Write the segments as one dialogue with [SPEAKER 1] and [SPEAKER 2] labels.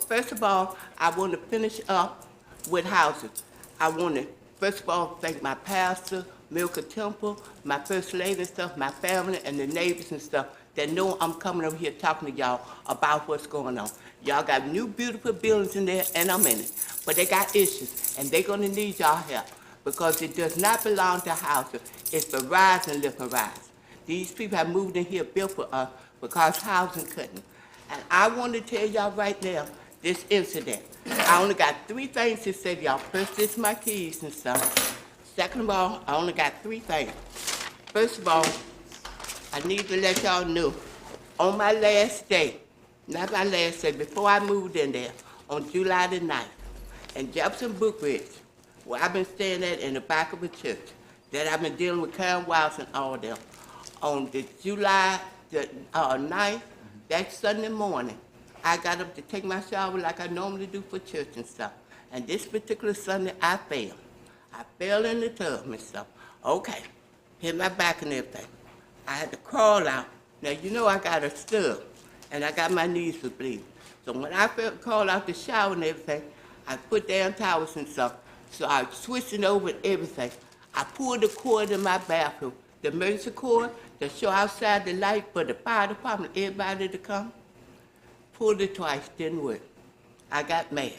[SPEAKER 1] First of all, I want to finish up with housing. I want to, first of all, thank my pastor, Milka Temple, my first lady and stuff, my family and the neighbors and stuff that know I'm coming over here talking to y'all about what's going on. Y'all got new beautiful buildings in there and I'm in it, but they got issues and they gonna need y'all help because it does not belong to housing. It's for rise and live and rise. These people have moved in here built for us because housing couldn't. And I want to tell y'all right now, this incident. I only got three things to say to y'all. First, this is my keys and stuff. Second of all, I only got three things. First of all, I need to let y'all know, on my last day, not my last day, before I moved in there, on July the 9th, in Jefferson Brookridge, where I've been staying at in the back of a church, that I've been dealing with Karen Wiles and all them, on the July the uh, 9th, that Sunday morning, I got up to take my shower like I normally do for church and stuff. And this particular Sunday, I fell. I fell in the tub and stuff. Okay, hit my back and everything. I had to crawl out. Now, you know I got a stub, and I got my knees was bleeding. So when I felt, crawled out the shower and everything, I put down towels and stuff. So I switched it over and everything. I pulled the cord in my bathroom, the emergency cord to show outside the light for the fire department, everybody to come. Pulled it twice, didn't work. I got mad.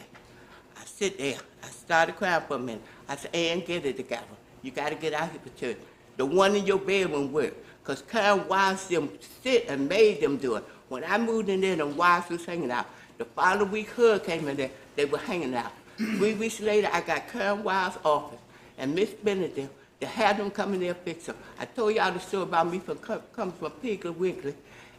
[SPEAKER 1] I sit there. I started crying for a minute. I said, Ann, get it together. You got to get out here for church. The one in your bedroom worked, 'cause Karen watched them sit and made them do it. When I moved in there, the wives was hanging out. The following week, Hood came in there. They were hanging out. Three weeks later, I got Karen Wild's office and Miss Benedict to have them come in there and fix them. I told y'all the story about me from co- coming from Piggly Wiggly,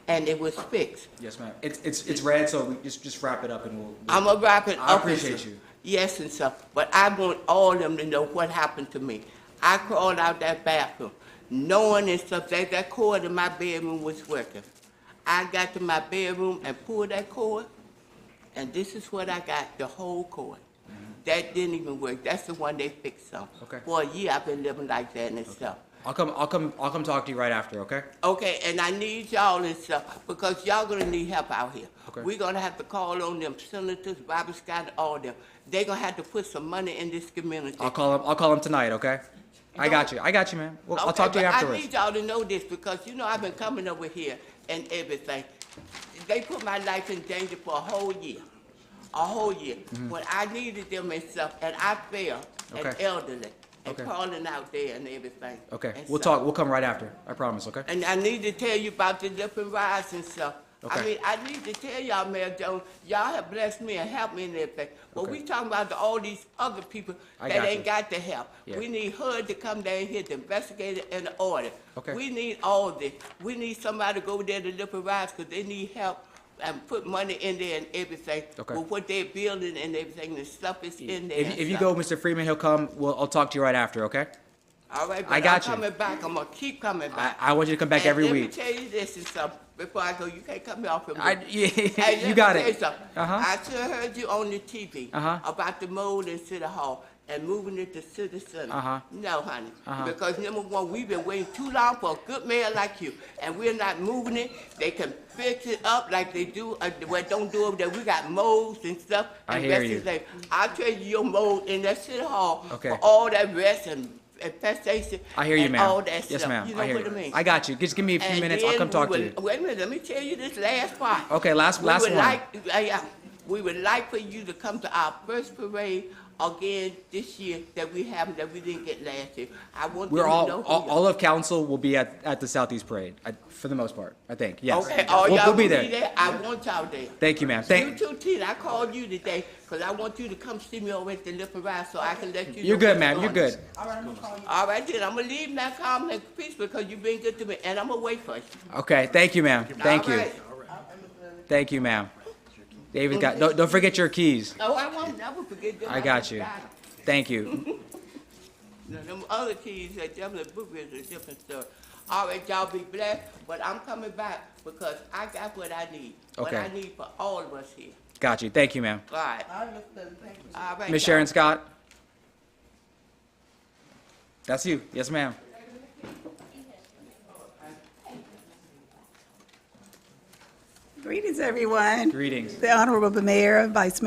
[SPEAKER 1] and it was fixed.
[SPEAKER 2] Yes, ma'am. It's it's it's red, so we just just wrap it up and we'll.
[SPEAKER 1] I'm a rapping
[SPEAKER 2] I
[SPEAKER 1] officer.
[SPEAKER 2] appreciate you.
[SPEAKER 1] Yes and stuff, but I want all of them to know what happened to me. I crawled out that bathroom, knowing and stuff that that cord in my bedroom was working. I got to my bedroom and pulled that cord, and this is what I got, the whole cord. That didn't even work. That's the one they fixed on.
[SPEAKER 2] Mm-hmm. Okay.
[SPEAKER 1] For a year, I've been living like that and stuff.
[SPEAKER 2] I'll come. I'll come. I'll come talk to you right after. Okay.
[SPEAKER 1] Okay, and I need y'all and stuff, because y'all gonna need help out here.
[SPEAKER 2] Okay.
[SPEAKER 1] We're gonna have to call on them senators, Bobby Scott, and all them. They gonna have to put some money in this community.
[SPEAKER 2] I'll call him. I'll call him tonight. Okay. I got you. I got you, ma'am. Well, I'll
[SPEAKER 1] Okay,
[SPEAKER 2] talk to you
[SPEAKER 1] but
[SPEAKER 2] afterwards.
[SPEAKER 1] I need y'all to know this, because you know I've been coming over here and everything. They put my life in danger for a whole year, a whole year. When I needed them and stuff, and I failed, and
[SPEAKER 2] Mm-hmm. Okay.
[SPEAKER 1] elderly, and
[SPEAKER 2] Okay.
[SPEAKER 1] calling out there and everything.
[SPEAKER 2] Okay.
[SPEAKER 1] and
[SPEAKER 2] We'll
[SPEAKER 1] stuff.
[SPEAKER 2] talk. We'll come right after. I promise. Okay.
[SPEAKER 1] And I need to tell you about the different rides and stuff. I
[SPEAKER 2] Okay.
[SPEAKER 1] mean, I need to tell y'all, Mayor Jones, y'all have blessed me and helped me in everything. But
[SPEAKER 2] Okay.
[SPEAKER 1] we talking about the- all these other people
[SPEAKER 2] I
[SPEAKER 1] that
[SPEAKER 2] got
[SPEAKER 1] ain't
[SPEAKER 2] you.
[SPEAKER 1] got the help.
[SPEAKER 2] Yeah.
[SPEAKER 1] We need HUD to come down here to investigate it and order.
[SPEAKER 2] Okay.
[SPEAKER 1] We need all this. We need somebody to go there to different rides because they need help and put money in there and everything.
[SPEAKER 2] Okay.
[SPEAKER 1] With what they're building and everything, the stuff is in there.
[SPEAKER 2] If,
[SPEAKER 1] and
[SPEAKER 2] if you
[SPEAKER 1] stuff.
[SPEAKER 2] go, Mr. Freeman, he'll come. We'll. I'll talk to you right after. Okay.
[SPEAKER 1] All right,
[SPEAKER 2] I
[SPEAKER 1] but I'm
[SPEAKER 2] got you.
[SPEAKER 1] coming back. I'm gonna keep coming
[SPEAKER 2] I,
[SPEAKER 1] back.
[SPEAKER 2] I want you to come back
[SPEAKER 1] And
[SPEAKER 2] every
[SPEAKER 1] let
[SPEAKER 2] week.
[SPEAKER 1] me tell you this and something before I go. You can't cut me off from
[SPEAKER 2] I.
[SPEAKER 1] this. Hey, let
[SPEAKER 2] Yeah,
[SPEAKER 1] me
[SPEAKER 2] you got
[SPEAKER 1] tell
[SPEAKER 2] it.
[SPEAKER 1] something.
[SPEAKER 2] Uh-huh.
[SPEAKER 1] I sure heard you on the TV
[SPEAKER 2] Uh-huh.
[SPEAKER 1] about the mold in City Hall and moving it to City Center.
[SPEAKER 2] Uh-huh.
[SPEAKER 1] No, honey,
[SPEAKER 2] Uh-huh.
[SPEAKER 1] because number one, we've been waiting too long for a good mayor like you, and we're not moving it. They can fix it up like they do. Uh, well, don't do it. That we got molds and stuff.
[SPEAKER 2] I
[SPEAKER 1] and
[SPEAKER 2] hear
[SPEAKER 1] rest
[SPEAKER 2] you.
[SPEAKER 1] is like- I tell you, your mold in that City Hall
[SPEAKER 2] Okay.
[SPEAKER 1] for all that rest and infestation.
[SPEAKER 2] I hear you,
[SPEAKER 1] and
[SPEAKER 2] ma'am.
[SPEAKER 1] All that
[SPEAKER 2] Yes,
[SPEAKER 1] stuff.
[SPEAKER 2] ma'am.
[SPEAKER 1] You know
[SPEAKER 2] I hear
[SPEAKER 1] what
[SPEAKER 2] you.
[SPEAKER 1] I mean?
[SPEAKER 2] I got you. Just give me a few
[SPEAKER 1] And
[SPEAKER 2] minutes. I'll
[SPEAKER 1] then
[SPEAKER 2] come
[SPEAKER 1] we
[SPEAKER 2] talk to
[SPEAKER 1] would-
[SPEAKER 2] you.
[SPEAKER 1] Wait a minute, let me tell you this last part.
[SPEAKER 2] Okay, last- last
[SPEAKER 1] We
[SPEAKER 2] one.
[SPEAKER 1] would like, uh, yeah, we would like for you to come to our first parade again this year that we have, that we didn't get last year. I want them
[SPEAKER 2] We're
[SPEAKER 1] to
[SPEAKER 2] all,
[SPEAKER 1] know.
[SPEAKER 2] all,
[SPEAKER 1] who you-
[SPEAKER 2] all of council will be at, at the Southeast Parade, I, for the most part, I think, yes.
[SPEAKER 1] Okay, all
[SPEAKER 2] We'll-
[SPEAKER 1] y'all
[SPEAKER 2] We'll
[SPEAKER 1] will
[SPEAKER 2] be
[SPEAKER 1] be
[SPEAKER 2] there.
[SPEAKER 1] there, I want y'all there.
[SPEAKER 2] Thank you, ma'am.
[SPEAKER 1] You
[SPEAKER 2] Thank,
[SPEAKER 1] too, Tina, I called you today, because I want you to come see me over at the Lip and Ride, so I can let you know.
[SPEAKER 2] you're good,
[SPEAKER 1] what's
[SPEAKER 2] ma'am, you're
[SPEAKER 1] going on.
[SPEAKER 2] good.
[SPEAKER 1] All right, then, I'm gonna leave now, calm and peace, because you've been good to me, and I'm gonna wait for you.
[SPEAKER 2] Okay, thank you, ma'am. Thank
[SPEAKER 1] All
[SPEAKER 2] you.
[SPEAKER 1] right.
[SPEAKER 2] Thank you, ma'am. David got, don't, don't forget your keys.
[SPEAKER 1] Oh, I won't never forget that.
[SPEAKER 2] I got you. Thank you.
[SPEAKER 1] Now, them other keys that Devlin Booker is a different story. All right, y'all be blessed, but I'm coming back because I got what I need. What
[SPEAKER 2] Okay.
[SPEAKER 1] I need for all of us here.
[SPEAKER 2] Got you. Thank you, ma'am.
[SPEAKER 1] All right. All right.
[SPEAKER 2] Miss
[SPEAKER 1] y'all.
[SPEAKER 2] Sharon Scott? That's you. Yes, ma'am.
[SPEAKER 3] Greetings, everyone.
[SPEAKER 2] Greetings.
[SPEAKER 3] The Honorable Mayor, Vice Mayor